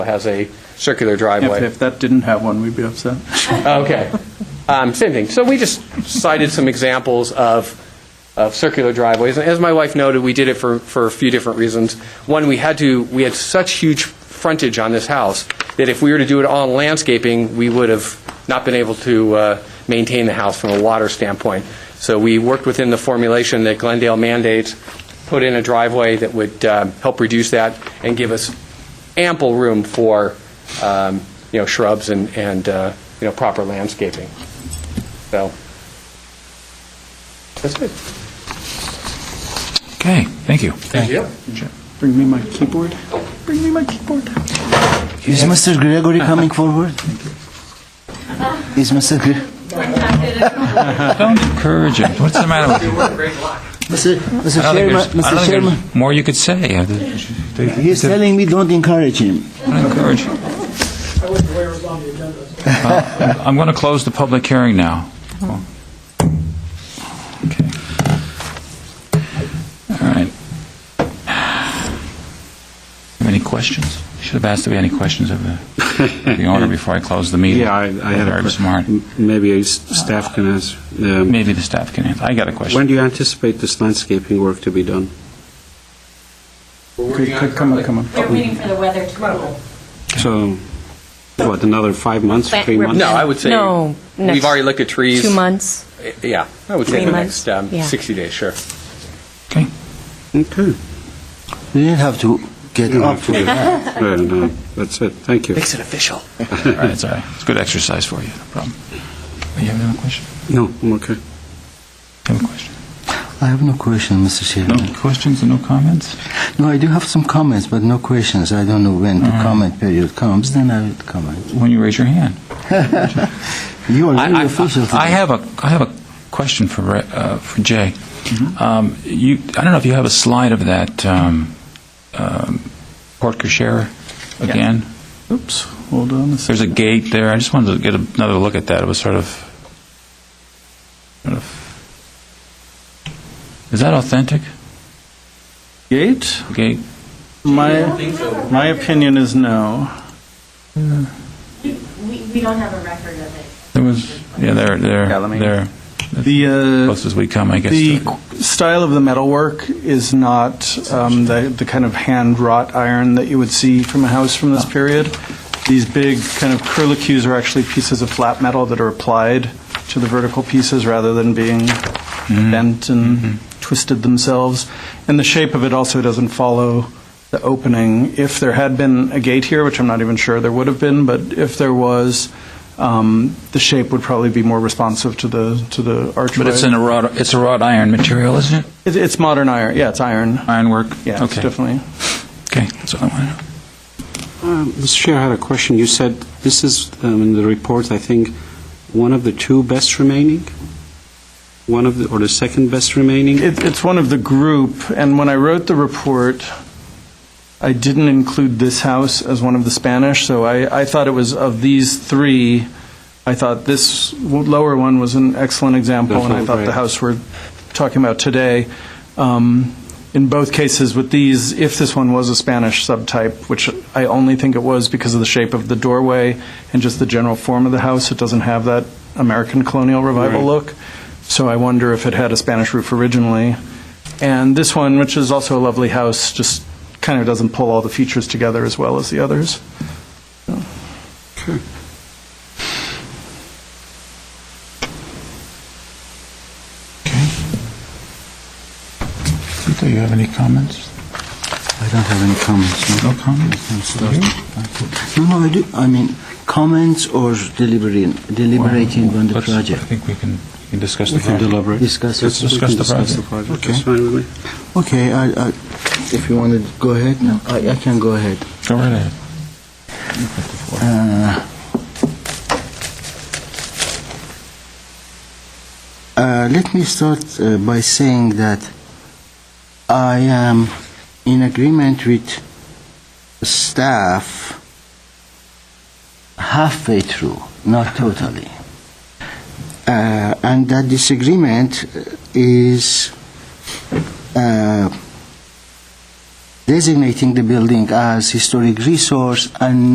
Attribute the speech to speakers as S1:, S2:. S1: has a circular
S2: If,
S1: driveway.
S2: if that didn't have one, we'd be upset.
S1: Okay. Um, Same thing. So we just cited some examples of, of circular driveways. And As my wife noted, we did it for, for a few different reasons. One, we had to, we had such huge frontage on this house that if we were to do it all in landscaping, we would have not been able to uh, maintain the house from a water standpoint. So we worked within the formulation that Glendale mandates, put in a driveway that would um, help reduce that and give us ample room for, um, you know, shrubs and, and, uh, you know, proper landscaping. So, that's it.
S3: Okay, thank you.
S1: Thank you.
S2: Bring me my keyboard. Bring me my keyboard.
S4: Is Mr. Gregory
S3: Uh-huh.
S4: coming forward? Is Mr. Gre-
S3: Don't encourage him. What's the matter with you?
S4: Mr. Mr.
S3: I don't think
S4: Chairman?
S3: there's- I don't
S4: Mr.
S3: think
S4: Chairman,
S3: there's more you could say. I think you should-
S4: he's telling me don't encourage him.
S3: Don't encourage him. Uh, I'm going to close the public hearing now. Okay. All right. Have Any questions? Should have asked if we had any questions of the the owner before I closed the meeting.
S5: Yeah, I, I had a
S3: Very
S5: question.
S3: smart.
S5: Maybe s- staff can answer. Um,
S3: Maybe the staff can answer. I got a question.
S5: When do you anticipate this landscaping work to be done?
S2: Could- could- Come on, come on.
S6: We're waiting for the weather to cool.
S5: So, what, another five months,
S6: Plant-
S5: three
S6: we're
S5: months?
S1: No, I would say.
S7: No,
S1: We've
S7: next-
S1: already looked at trees.
S7: Two months.
S1: Eh, Yeah, I would say
S7: Three
S1: the
S7: months?
S1: next um,
S7: Yeah.
S1: 60 days, sure.
S3: Okay.
S5: Okay.
S4: You didn't have to get
S5: No,
S4: up.
S5: no, no, that's it, thank you.
S1: it official.
S3: All right, it's all right. It's good exercise for you, no problem. You have another question?
S5: No, I'm okay.
S3: You have a question?
S4: I have no question, Mr. Chairman.
S3: No questions and no comments?
S4: No, I do have some comments, but no questions. I don't know when the
S3: Mm.
S4: comment period comes, then I will comment.
S3: When you raise your hand.
S4: You are
S3: I-
S4: really
S3: I-
S4: official today.
S3: I have a, I have a question for, Re- uh, for Jay. Um, You, I don't know if you have a slide of that um, um, Port Cochere again?
S2: Oops, hold on a second.
S3: There's a gate there, I just wanted to get another look at that, it was sort of, sort of- is that authentic,
S2: Gate?
S3: The gate?
S2: My, my opinion is no.
S6: We, we we don't have a record of it.
S3: There was, yeah, there,
S2: Yeah, let
S3: there,
S2: me-
S3: there,
S2: The, uh,
S3: close as we come, I guess.
S2: the
S3: to-
S2: qu- style of the metalwork is not um, the, the kind of hand wrought iron that you would see from a house from
S3: Oh.
S2: this period. These big kind of curlicues are actually pieces of flat metal that are applied to the vertical pieces rather than being
S3: Mm-hmm.
S2: bent and twisted themselves. And the shape of it also doesn't follow the opening. If there had been a gate here, which I'm not even sure there would have been, but if there was, um, the shape would probably be more responsive to the to the archway.
S3: But it's in a wrought, it's a wrought iron material, isn't it?
S2: It, it's modern iron. Yeah, it's iron.
S3: Ironwork?
S2: Yeah, it's
S3: Okay.
S2: definitely.
S3: Okay, that's all I want to know.
S5: Uh, Mr. Chair, I had a question. You said, this is, um, in the report, I think, one of the two best remaining? One of the, or the second best remaining?
S2: It, it's one of the group, and when I wrote the report, I didn't include this house as one of the Spanish, so I, I thought it was of these three. I thought this w- lower one was an excellent example, and I thought the
S5: Right.
S2: house we're talking about today. Um, in both cases with these, if this one was a Spanish subtype, which I only think it was because of the shape of the doorway and just the general form of the house, it doesn't have that American colonial revival
S5: Right.
S2: look. So I wonder if it had a Spanish roof originally. And this one, which is also a lovely house, just kind of doesn't pull all the features together as well as the others.
S3: Do you have any comments?
S4: I don't have any comments.
S3: No comments?
S4: No, no, I do. I mean, comments or deliberating, deliberating on the
S3: Let's-
S4: project.
S3: I think we can, we can discuss the
S5: We can
S3: project.
S5: deliberate.
S4: Discuss it.
S5: Let's- we
S3: Discuss
S5: can
S3: the project.
S5: project.
S4: Okay.
S5: That's fine with me.
S4: Okay, I, I, if you want to go ahead, no, I, I can go ahead.
S3: Go right ahead.
S4: Uh, let me start uh, by saying that I am in agreement with staff halfway through, not totally. Uh, and that disagreement is uh, designating the building as historic resource and